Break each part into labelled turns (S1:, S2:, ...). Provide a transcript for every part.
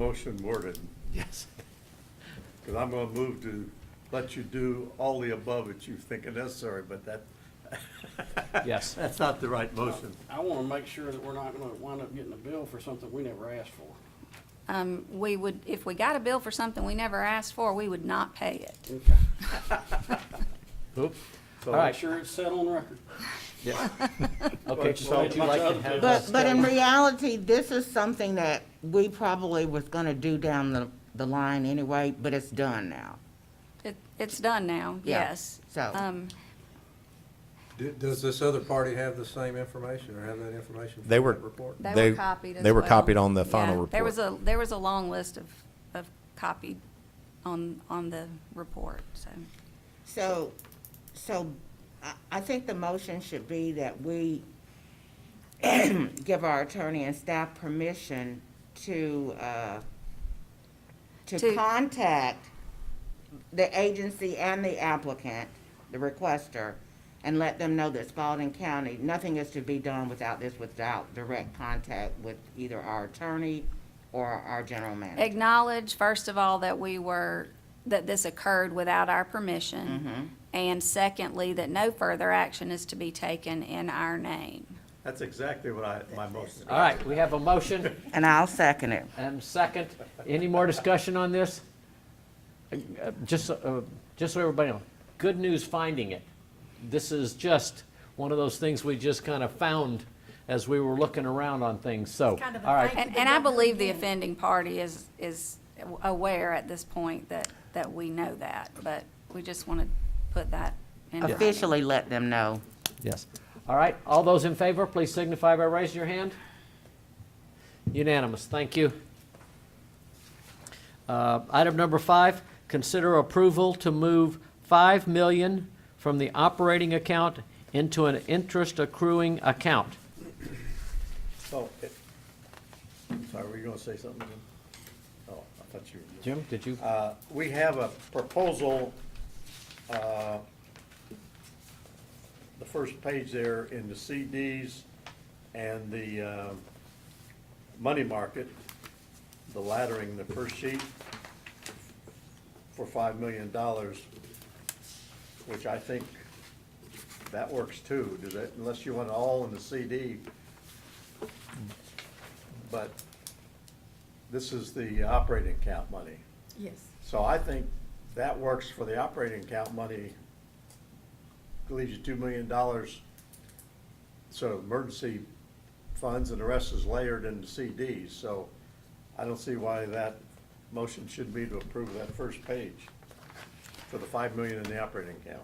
S1: motion worded,
S2: Yes.
S1: because I'm going to move to let you do all the above that you think are necessary, but that.
S2: Yes.
S1: That's not the right motion.
S3: I want to make sure that we're not going to wind up getting a bill for something we never asked for.
S4: Um, we would, if we got a bill for something we never asked for, we would not pay it.
S3: Okay.
S2: Oop.
S1: So-
S2: All
S3: Make
S2: right.
S3: sure it's set on record.
S2: Yeah. Okay,
S1: But-
S2: so would you like to have
S5: But,
S2: us?
S5: but in reality, this is something that we probably was gonna do down the, the line anyway, but it's done now.
S4: It, it's done now,
S5: Yeah,
S4: yes.
S5: so-
S4: Um,
S6: Do- Does this other party have the same information or have that information? from
S7: They were-
S6: that Report?
S4: they
S7: They-
S4: were copied as
S7: they were
S4: well.
S7: copied on the final
S4: Yeah, There
S7: report.
S4: was a, there was a long list of, of copied on, on the report, so.
S5: So, so I, I think the motion should be that we give our attorney and staff permission to, uh, to
S4: To-
S5: contact the agency and the applicant, the requester, and let them know that Spalding County, nothing is to be done without this, without direct contact with either our attorney or our general manager.
S4: Acknowledge, first of all, that we were, that this occurred without our
S5: Mm-hmm.
S4: permission. And secondly, that no further action is to be taken in our name.
S1: That's exactly what I, my motion.
S2: All right, we have a motion
S5: And I'll second it.
S2: and second. Any more discussion on this? Uh, Just, uh, just so everybody knows, good news finding it. This is just one of those things we just kind of found as we were looking around on things, so.
S8: kind of a
S2: All right,
S8: thank-
S4: And, and I believe the offending party is, is aware at this point that, that we know that, but we just want to put that in. writing.
S5: Officially let them know.
S2: Yes. All right, all those in favor, please signify by raising your hand. Unanimous, thank you. Uh, Item number five, consider approval to move 5 million from the operating account into an interest accruing account.
S1: So, it- sorry, were you going to say something? Jim? Oh, I thought you were.
S2: Jim, did you?
S1: Uh, We have a proposal, uh, the first page there in the CDs and the um, money market, the laddering, the first sheet for $5 million, which I think that works too, does that, unless you want it all in the CD. But this is the operating account money.
S8: Yes. Oh,
S1: So I think that works for the operating account money. Leaves you two million dollars, sort of emergency funds, and the rest is layered into CDs. So I don't see why that motion should be to approve that first page for the five million in the operating account.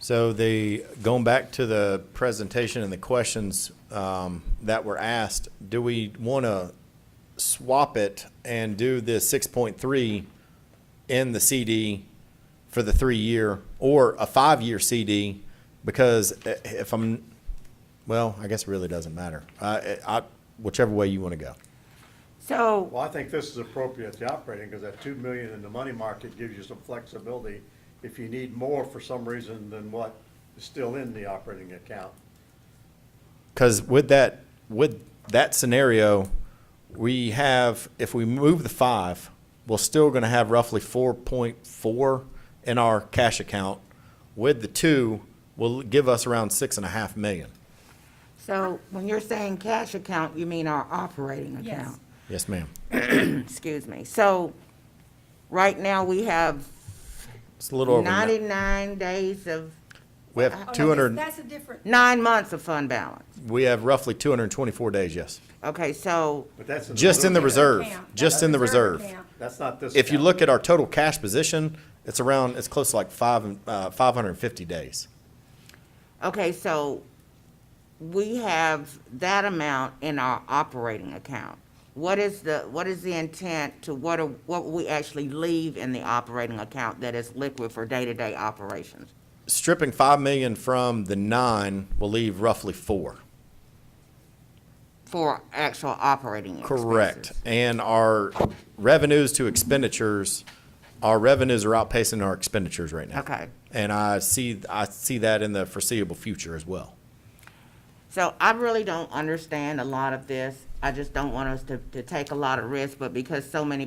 S7: So the, going back to the presentation and the questions um, that were asked, do we want to swap it and do the 6.3 in the CD for the three-year or a five-year CD? Because i- if I'm, well, I guess it really doesn't matter. I- I- Whichever way you want to go.
S5: So
S1: Well, I think this is appropriate, the operating, because that two million in the money market gives you some flexibility if you need more for some reason than what is still in the operating account.
S7: Because with that, with that scenario, we have, if we move the five, we're still going to have roughly four point four in our cash account. With the two, will give us around six and a half million.
S5: So when you're saying cash account, you mean our operating
S8: Yes.
S5: account?
S7: Yes, ma'am.
S5: Excuse me. So right now, we have
S7: It's a little over, ni-
S5: 99 days of,
S7: we
S8: Oh, no,
S7: have
S8: that's-
S7: two hundred,
S8: That's a different,
S5: nine months of fund balance.
S7: we have roughly two hundred and twenty-four days, yes.
S5: Okay, so,
S1: But that's in the.
S7: Just in the
S1: reserve.
S7: reserve,
S8: account.
S7: just in the reserve.
S8: account.
S1: That's not this.
S7: If you
S1: account.
S7: look at our total cash position, it's around, it's close to like five, and- uh, five hundred and fifty days.
S5: okay, so we have that amount in our operating account. What is the, what is the intent to what, are- what we actually leave in the operating account that is liquid for day-to-day operations?
S7: stripping five million from the nine will leave roughly four.
S5: For actual operating expenses?
S7: Correct. And our revenues to expenditures, our revenues are outpacing our expenditures right now.
S5: Okay.
S7: And I see, I see that in the foreseeable future as well.
S5: So I really don't understand a lot of this. I just don't want us to, to take a lot of risk, but because so many